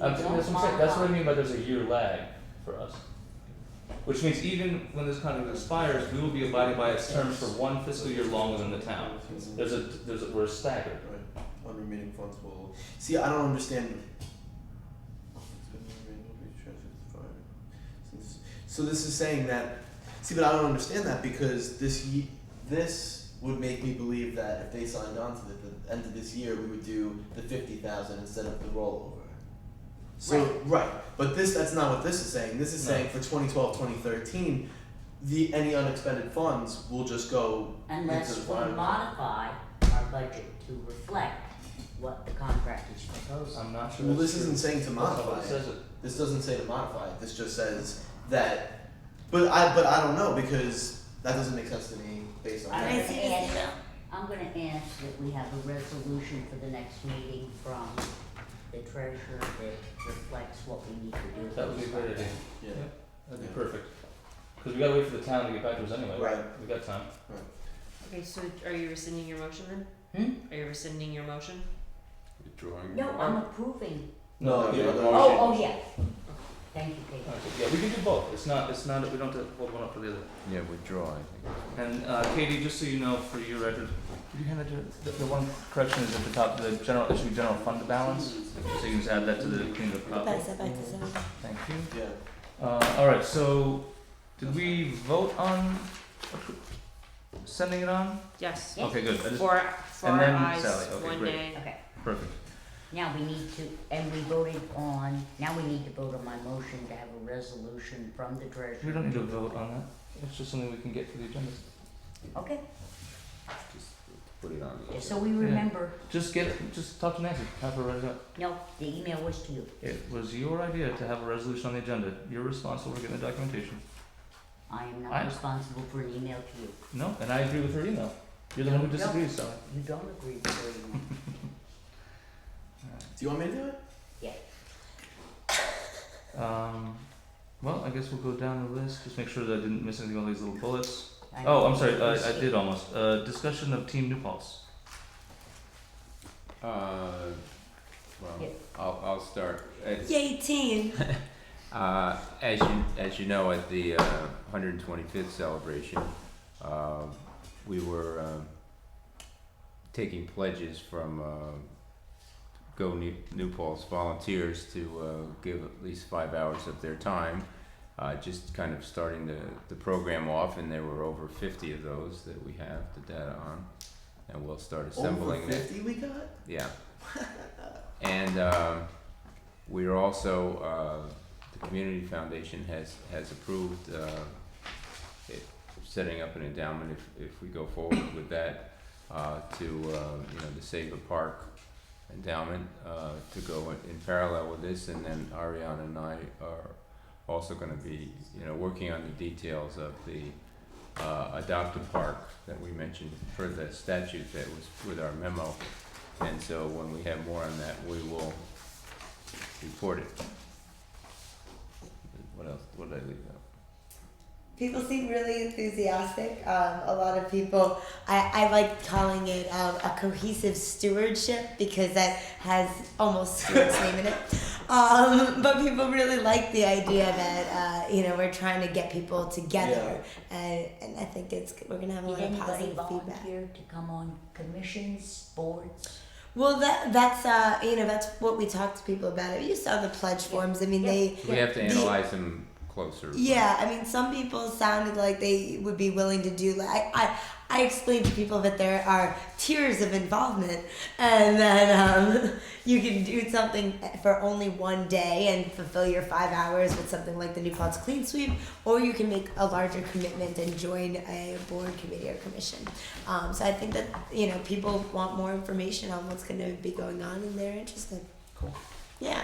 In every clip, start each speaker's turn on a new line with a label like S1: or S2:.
S1: Um,
S2: don't
S1: that's what I'm saying, that's what I
S2: modify.
S1: mean by there's a year lag for us. Which means even when this contract expires, we will be abiding by its terms for one fiscal year longer than the town. There's a, there's a, we're staggered.
S3: Right. On remaining funds will. See, I don't understand. So this is saying that. See, but I don't understand that because this ye- this would make me believe that if they signed on to the, the end of this year, we would do the fifty thousand instead of the rollover. So right. but this that's not what this is saying. This is
S1: No.
S3: saying for 2012, 2013, the any unexpended funds will just go into
S2: Unless
S3: the
S2: we
S3: line.
S2: modify our budget to reflect what the contract is proposing.
S1: I'm not sure
S3: Well,
S1: that's
S3: this isn't
S1: true.
S3: saying to
S1: That's not what
S3: modify
S1: it
S3: it.
S1: says it.
S3: This doesn't say to modify it. This just says that. But I but I don't know because that doesn't make sense to me based on
S2: I
S3: that.
S2: didn't see this email. I'm gonna ask that we have a resolution for the next meeting from the treasurer that reflects what we need to do. with
S1: That would be a
S2: this
S1: great idea.
S2: contract.
S3: Yeah.
S1: That'd
S3: Yeah.
S1: be perfect. Cause we gotta wait for the town to get back to us anyway.
S3: Right.
S1: We got time.
S4: Okay, so are you rescinding your motion then? Are you rescinding your motion?
S5: Withdrawing.
S2: Hmm? No, I'm approving.
S3: No,
S5: No,
S3: the
S5: the
S3: other
S5: motion.
S2: Oh, oh, yeah. Thank you, Kate.
S1: Okay, yeah, we can do both. It's not, it's not, we don't have to hold one up for the other.
S5: Yeah, withdraw, I think.
S1: And uh, Katie, just so you know, for your record, could you hand it to, the, the one correction is at the top, the general, it should be general fund balance, so you can just add that to the clean up copy. Thank you.
S3: Yeah.
S1: Uh, alright, so, did we vote on appro- sending it on?
S4: Yes.
S2: Yeah.
S1: Okay, good, I just,
S4: Four, four
S1: then
S4: eyes,
S1: Sally. Okay,
S4: one
S1: great.
S4: nay.
S2: Okay,
S1: perfect.
S2: now we need to, and we voted on, now we need to vote on my motion to have a resolution from the treasurer.
S1: We don't need to vote on that, it's just something we can get to the agenda.
S2: Okay,
S5: Just put it on.
S2: just so we remember,
S1: Just get, it- just talk to Nancy, have her write it up.
S2: no, the email was to you.
S1: It was your idea to have a resolution on the agenda, you're responsible for getting the documentation.
S2: I am
S1: I-
S2: not responsible for an email to you.
S1: No, and I agree with her email, you're the one who
S2: No, no.
S1: disagrees, Sally.
S2: You don't agree with her email.
S3: Do you want me to do it?
S1: Um, well, I guess we'll go down the list. Just make sure that I didn't miss anything on these little bullets.
S2: I
S1: Oh, I'm
S2: know
S1: sorry,
S2: you
S1: I, I
S2: skip-
S1: did almost. Uh, discussion of Team New Paltz.
S5: Uh,
S2: Yeah.
S5: well, I'll, I'll start. It's,
S4: Yay, team.
S5: uh, as you, as you know, at the, uh, hundred and twenty-fifth celebration, um, we were, um, taking pledges from, um, Go New, New Paltz volunteers to, uh, give at least five hours of their time. Uh, just kind of starting the, the program off and there were over fifty of those that we have the data on. And we'll start assembling
S3: Over
S5: it.
S3: fifty we got.
S5: Yeah. and um, we're also uh, the community foundation has has approved uh, it, setting up an endowment if if we go forward with that uh, to uh, you know the Save a Park endowment uh, to go in, in parallel with this, and then Ariana and I are also going to be you know working on the details of the. Uh, adopt a park that we mentioned for the statute that was with our memo and so when we have more on that, we will report it. What else, what did I leave out?
S6: People seem really enthusiastic. Um, a lot of people. I, I like calling it um, a cohesive stewardship because that has almost Stuart's name in it. Um, but people really like the idea that uh, you know we're trying to get people together, and, and I think it's we're gonna have a
S2: Did
S6: lot of
S2: anybody
S6: positive feedback.
S2: volunteer to come on commissions, boards?
S6: Well, that that's uh, you know that's what we talked to people about. You saw the pledge forms. I mean,
S2: Yeah.
S6: they
S5: We have to
S6: The-
S5: analyze them closer.
S6: Yeah, I mean, some people sounded like they would be willing to do. Like I, I, I explained to people that there are tiers of involvement, and that um, you can do something for only one day and fulfill your five hours with something like the New Paltz Clean Sweep, or you can make a larger commitment and join a board committee or commission. Um, so I think that you know people want more information on what's going to be going on, and they're interested.
S3: Cool.
S6: Yeah,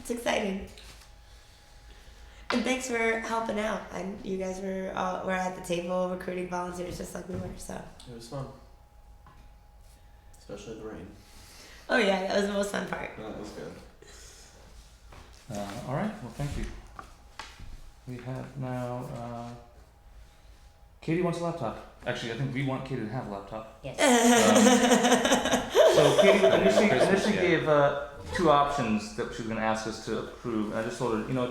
S6: it's exciting. And thanks for helping out. And you guys were all, were at the table recruiting volunteers just like we were. So,
S3: It was fun. Especially the rain.
S6: oh yeah, that was the most fun part.
S3: No, that was good.
S1: Uh, all right, well, thank you. We have now uh, Katie wants a laptop. Actually, I think we want Katie to have a laptop.
S2: Yes.
S1: So Katie
S5: Yeah,
S1: initially,
S5: Christmas,
S1: initially
S5: yeah.
S1: gave uh, two options that she was going to ask us to approve, and I just told her, you know,